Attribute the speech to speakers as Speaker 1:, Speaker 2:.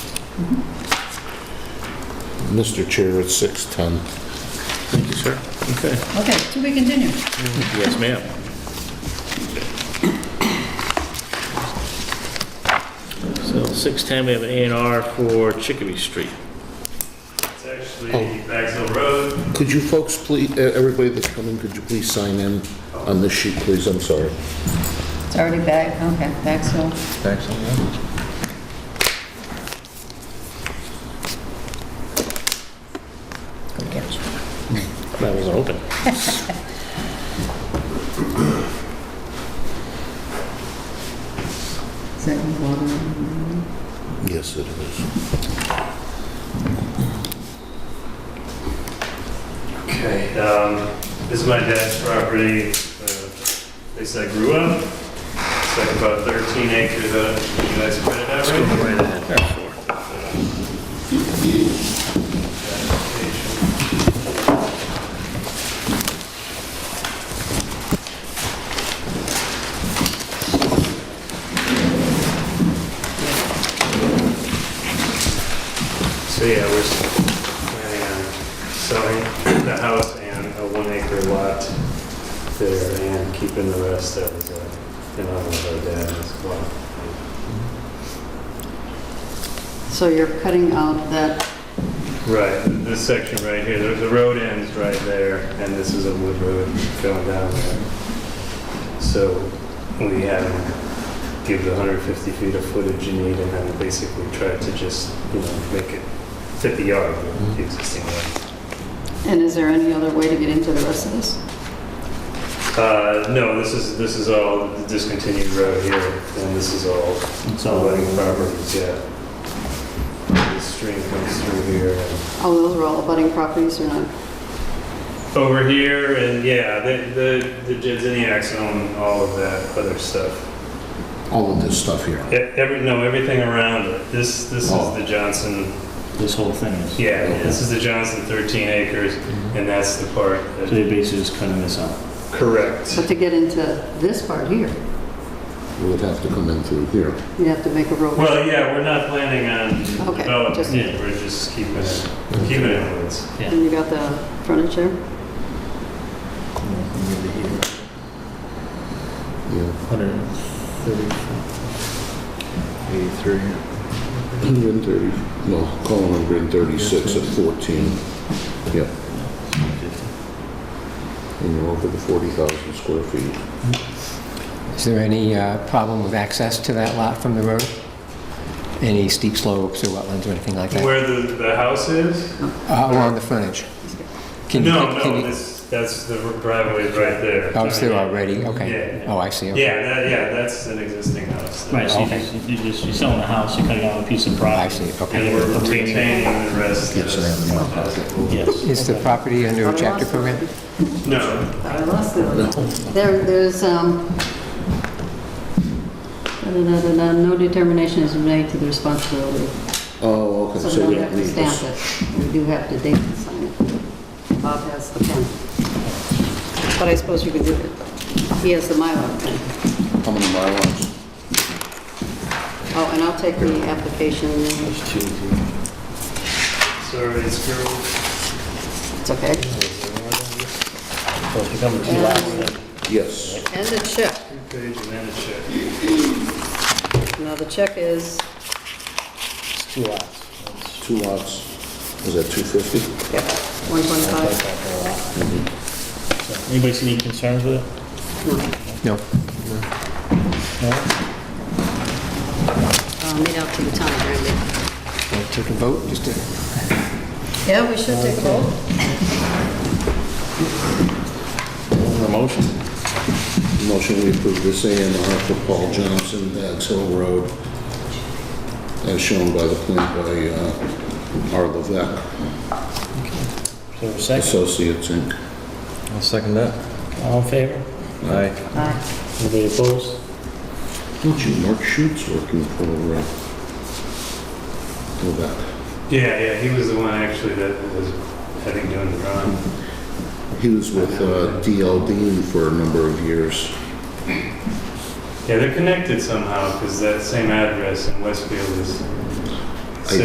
Speaker 1: Mr. Chair, it's 6:10.
Speaker 2: Thank you, sir. Okay.
Speaker 3: Okay, to be continued.
Speaker 2: Yes, ma'am. So 610, we have an A and R for Chicopee Street.
Speaker 4: It's actually Bagsville Road.
Speaker 1: Could you folks please, uh, everybody that's coming, could you please sign in on this sheet, please? I'm sorry.
Speaker 3: It's already back, okay, back so.
Speaker 2: That wasn't open.
Speaker 3: Is that in order?
Speaker 1: Yes, it is.
Speaker 4: Okay. Um, this is my dad's property, uh, place I grew up. It's like about 13 acres, uh, you guys have read that, right?
Speaker 2: Right ahead.
Speaker 4: So yeah, we're s- planning on selling the house and a one acre lot there and keeping the rest that was, uh, in honor of our dad as well.
Speaker 3: So you're cutting out that,
Speaker 4: Right, this section right here, the the road ends right there, and this is a wood road going down there. So we had him give the 150 feet of footage you need, and then basically tried to just, you know, make it 50 yard
Speaker 2: Mm-hmm.
Speaker 4: with the existing road.
Speaker 3: and is there any other way to get into the rest of this?
Speaker 4: Uh, no, this is, this is all the discontinued road here, and this is all
Speaker 2: It's all
Speaker 4: abutting properties, yeah. The stream comes through here, and
Speaker 3: Oh, those are all abutting properties or not?
Speaker 4: over here and yeah, the the, the Jedziniacs own all of that other stuff.
Speaker 1: All of this stuff here.
Speaker 4: E- Every no, everything around it. This this
Speaker 1: Oh.
Speaker 4: is the Johnson.
Speaker 2: This whole thing is, so
Speaker 4: Yeah, this is the Johnson 13 acres,
Speaker 5: Mm-hmm.
Speaker 4: and that's the part. That,
Speaker 2: they're basically just cutting this out.
Speaker 4: correct.
Speaker 3: But to get into this part here,
Speaker 1: We would have to come in through here.
Speaker 3: you have to make a road.
Speaker 4: Well, yeah, we're not planning on
Speaker 3: Okay,
Speaker 4: developing.
Speaker 3: just-
Speaker 4: it. We're just keeping it
Speaker 5: Mm-hmm.
Speaker 4: keeping it woods.
Speaker 3: And you got the frontage there?
Speaker 1: Yeah.
Speaker 6: 83.
Speaker 1: 130, no, call it 136 at 14. Yep. And you're over the 40,000 square feet.
Speaker 5: Is there any uh, problem with access to that lot from the road? Any steep slopes or wetlands or anything like that?
Speaker 4: Where the, the house is?
Speaker 5: Uh, Along the frontage? Can you-
Speaker 4: no,
Speaker 5: can
Speaker 4: no,
Speaker 5: you-
Speaker 4: this, that's the driveway is right there.
Speaker 5: Oh, it's there already, okay.
Speaker 4: Yeah.
Speaker 5: Oh, I see, okay.
Speaker 4: Yeah, that, yeah, that's an existing house.
Speaker 2: Right, so you
Speaker 5: Okay.
Speaker 2: just- you just, you're selling a house, you're cutting out a piece of property.
Speaker 5: I see,
Speaker 4: And
Speaker 5: okay.
Speaker 4: we're retaining the rest. of
Speaker 2: Yes.
Speaker 5: Is the property under
Speaker 3: I
Speaker 5: a chapter
Speaker 3: lost it.
Speaker 5: program?
Speaker 4: No,
Speaker 3: I lost it. There, there's, um, da-da-da-da-da, no determination is made to the responsibility.
Speaker 1: Oh, okay,
Speaker 3: So
Speaker 1: so
Speaker 3: we
Speaker 1: we
Speaker 3: don't have
Speaker 1: don't
Speaker 3: to
Speaker 1: need
Speaker 3: stamp
Speaker 1: this.
Speaker 3: it. We do have to date and sign it. Bob has the pen. But I suppose you could do it. He has the Mylar pen.
Speaker 1: How many miles?
Speaker 3: Oh, and I'll take the application.
Speaker 4: Sorry, it's girl.
Speaker 3: It's okay.
Speaker 2: So it's becoming two lots then.
Speaker 1: Yes.
Speaker 3: And the check.
Speaker 4: Page and then a check.
Speaker 3: Now, the check is,
Speaker 2: It's two lots. It's
Speaker 1: Two lots. Is that 250?
Speaker 3: yeah, 125.
Speaker 2: like a lot. So, Anybody see any concerns with it?
Speaker 5: No.
Speaker 2: No?
Speaker 3: I'll meet uh, out to the town, Randy.
Speaker 5: Wanna Take a vote, just to...
Speaker 3: Yeah, we should take a vote.
Speaker 2: A motion?
Speaker 1: Motion we approve this A and R for Paul Johnson, Bags Hill Road, as shown by the plan by uh, R. Levesque
Speaker 2: So a second,
Speaker 1: Associates, Inc.
Speaker 6: I'll second that.
Speaker 2: all in favor?
Speaker 6: Aye.
Speaker 3: Aye.
Speaker 2: Anybody opposed?
Speaker 1: Don't you, Mark Schutz's working for uh, Levesque.
Speaker 4: Yeah, yeah, he was the one actually that was, I think, doing the drawing.
Speaker 1: He was with uh, D.L. Dean for a number of years.
Speaker 4: Yeah, they're connected somehow, because that same address in Westfield is